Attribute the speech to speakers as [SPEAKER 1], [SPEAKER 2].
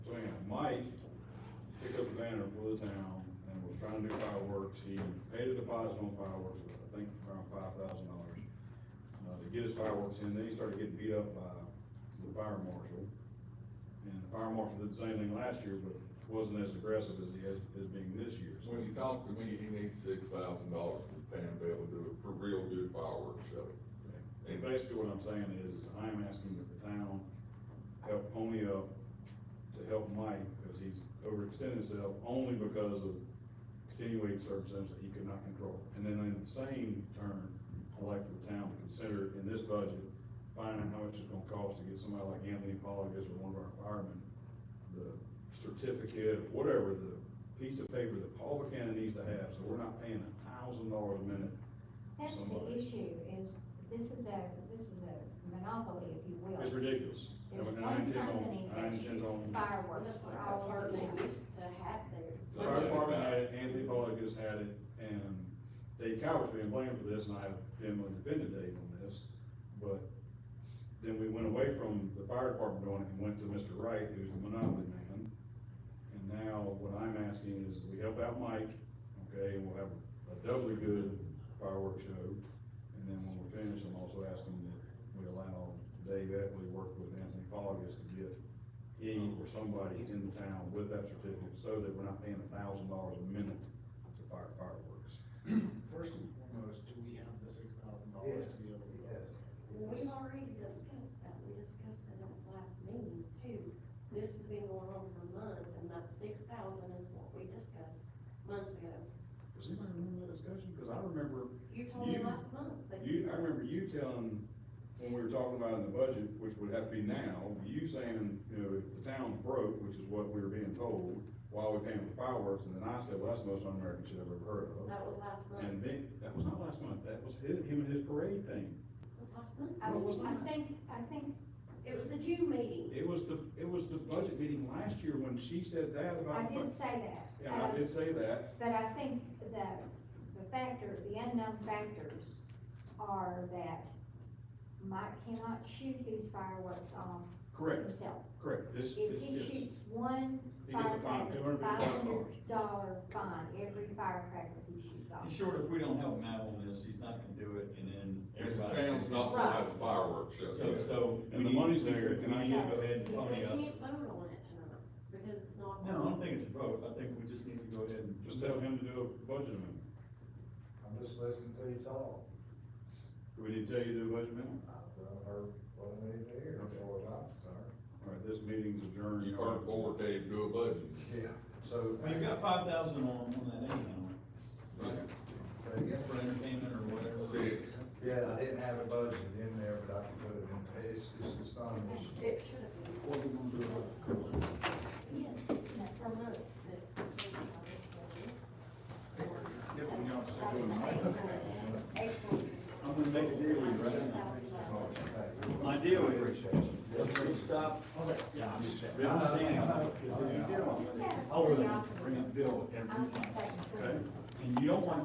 [SPEAKER 1] Mike picked up a banner for the town and was trying to do fireworks. He paid a deposit on fireworks, I think around five thousand dollars, uh, to get his fireworks in. Then he started getting beat up by the fire marshal. And the fire marshal did the same thing last year, but wasn't as aggressive as he is, is being this year. So
[SPEAKER 2] When he talked to me, he needs six thousand dollars for Pam Bell to do a, for real good fireworks show.
[SPEAKER 1] And basically what I'm saying is, I'm asking that the town help only up to help Mike, because he's overextended himself only because of extenuating circumstances that he could not control. And then in the same turn, I'd like for the town to consider in this budget, finding how much it's gonna cost to get somebody like Anthony Pollack is, or one of our firemen, the certificate, whatever, the piece of paper that Paul Buchanan needs to have, so we're not paying a thousand dollars a minute. for
[SPEAKER 3] That's the
[SPEAKER 1] somebody.
[SPEAKER 3] issue, is this is a, this is a monopoly, if you will.
[SPEAKER 1] It's ridiculous.
[SPEAKER 3] There's
[SPEAKER 1] I mean, I
[SPEAKER 3] one
[SPEAKER 1] intend on-
[SPEAKER 3] company
[SPEAKER 1] I
[SPEAKER 3] that
[SPEAKER 1] intend
[SPEAKER 3] shoots
[SPEAKER 1] on-
[SPEAKER 3] fireworks
[SPEAKER 4] That's
[SPEAKER 3] for
[SPEAKER 4] what our
[SPEAKER 3] all our
[SPEAKER 4] department
[SPEAKER 3] members.
[SPEAKER 4] used to have theirs.
[SPEAKER 1] The fire department had it, Anthony Pollock has had it, and Dave Coward's been blamed for this, and I vehemently defended Dave on this. But then we went away from the fire department doing it and went to Mr. Wright, who's the monopoly man. And now what I'm asking is we help out Mike, okay, and we'll have a doubly good fireworks show. And then when we're finished, I'm also asking that we allow Dave Epley to work with Anthony Pollock to get he or somebody in the town with that certificate, so that we're not paying a thousand dollars a minute to fire fireworks.
[SPEAKER 5] First and foremost, do we have the six thousand dollars to be able to? do this?
[SPEAKER 4] Well, We've already discussed that, we discussed that at the last meeting too. This has been going on for months, and that six thousand is what we discussed months ago.
[SPEAKER 1] Does anybody remember that discussion? Because I remember,
[SPEAKER 4] You told me
[SPEAKER 1] You-
[SPEAKER 4] last month that.
[SPEAKER 1] you, I remember you telling, when we were talking about in the budget, which would have to be now, you saying, you know, if the town's broke, which is what we were being told, why are we paying for fireworks? And then I said, well, that's the most un-American shit I've ever heard of.
[SPEAKER 4] That was last month,
[SPEAKER 1] And then, that was not last month, that was his, him and his parade thing.
[SPEAKER 4] was last month.
[SPEAKER 3] I,
[SPEAKER 1] What was that?
[SPEAKER 3] I think, I think,
[SPEAKER 4] It was the June meeting.
[SPEAKER 1] It was the, it was the budget meeting last year when she said that
[SPEAKER 3] I
[SPEAKER 1] about.
[SPEAKER 3] did say that.
[SPEAKER 1] Yeah, I
[SPEAKER 3] Um,
[SPEAKER 1] did say that.
[SPEAKER 3] But I think that the factor, the unknown factors are that Mike cannot shoot these fireworks off
[SPEAKER 1] Correct,
[SPEAKER 3] himself.
[SPEAKER 1] correct. This,
[SPEAKER 3] If
[SPEAKER 1] this,
[SPEAKER 3] he
[SPEAKER 1] this-
[SPEAKER 3] shoots one
[SPEAKER 1] he gets a fine, two
[SPEAKER 3] firecracker,
[SPEAKER 1] hundred
[SPEAKER 3] five
[SPEAKER 1] fifty thousand dollars.
[SPEAKER 3] hundred dollar fine, every firecracker he shoots off.
[SPEAKER 6] He's sure if we don't help him out on this, he's not gonna do it, and then
[SPEAKER 2] And the
[SPEAKER 6] everybody.
[SPEAKER 2] town's not gonna have a fireworks show.
[SPEAKER 6] So, so.
[SPEAKER 1] And the
[SPEAKER 6] we need-
[SPEAKER 1] money's there,
[SPEAKER 6] We
[SPEAKER 1] and I-
[SPEAKER 6] need to go ahead and pony
[SPEAKER 4] We
[SPEAKER 6] up.
[SPEAKER 4] can't vote on it tonight, because it's not.
[SPEAKER 6] No, I don't think it's a vote, I think we just need to go ahead and.
[SPEAKER 1] Just tell him to do a budget amendment.
[SPEAKER 7] I'm just listening to you talk.
[SPEAKER 1] Do we need to tell you to do a budget amendment?
[SPEAKER 7] I've done heard what I need to hear, as far as I'm concerned.
[SPEAKER 1] All right, this meeting's adjourned.
[SPEAKER 2] You heard forward, Dave, do a budget.
[SPEAKER 7] Yeah. So.
[SPEAKER 6] We've got five thousand on, on that anyhow,
[SPEAKER 7] Say again.
[SPEAKER 6] for entertainment or whatever.
[SPEAKER 2] Six.
[SPEAKER 7] Yeah, I didn't have a budget in there, but I can put it in, it's, it's just not an issue.
[SPEAKER 4] It should have been.
[SPEAKER 6] What we gonna do about it?
[SPEAKER 4] Yeah, for months, but.
[SPEAKER 6] Yeah, but we don't say
[SPEAKER 4] April,
[SPEAKER 6] we're not.
[SPEAKER 4] April.
[SPEAKER 6] I'm gonna make a deal with you right now. My
[SPEAKER 7] My
[SPEAKER 6] deal is-
[SPEAKER 7] Appreciate you.
[SPEAKER 6] Let's go stop. Yeah, I'm just, I'm just saying, because if you do,
[SPEAKER 3] Just out of
[SPEAKER 6] I'll really
[SPEAKER 3] curiosity,
[SPEAKER 6] bring a bill every
[SPEAKER 3] I'm
[SPEAKER 6] month.
[SPEAKER 3] suspecting.
[SPEAKER 1] Okay.
[SPEAKER 6] And you don't want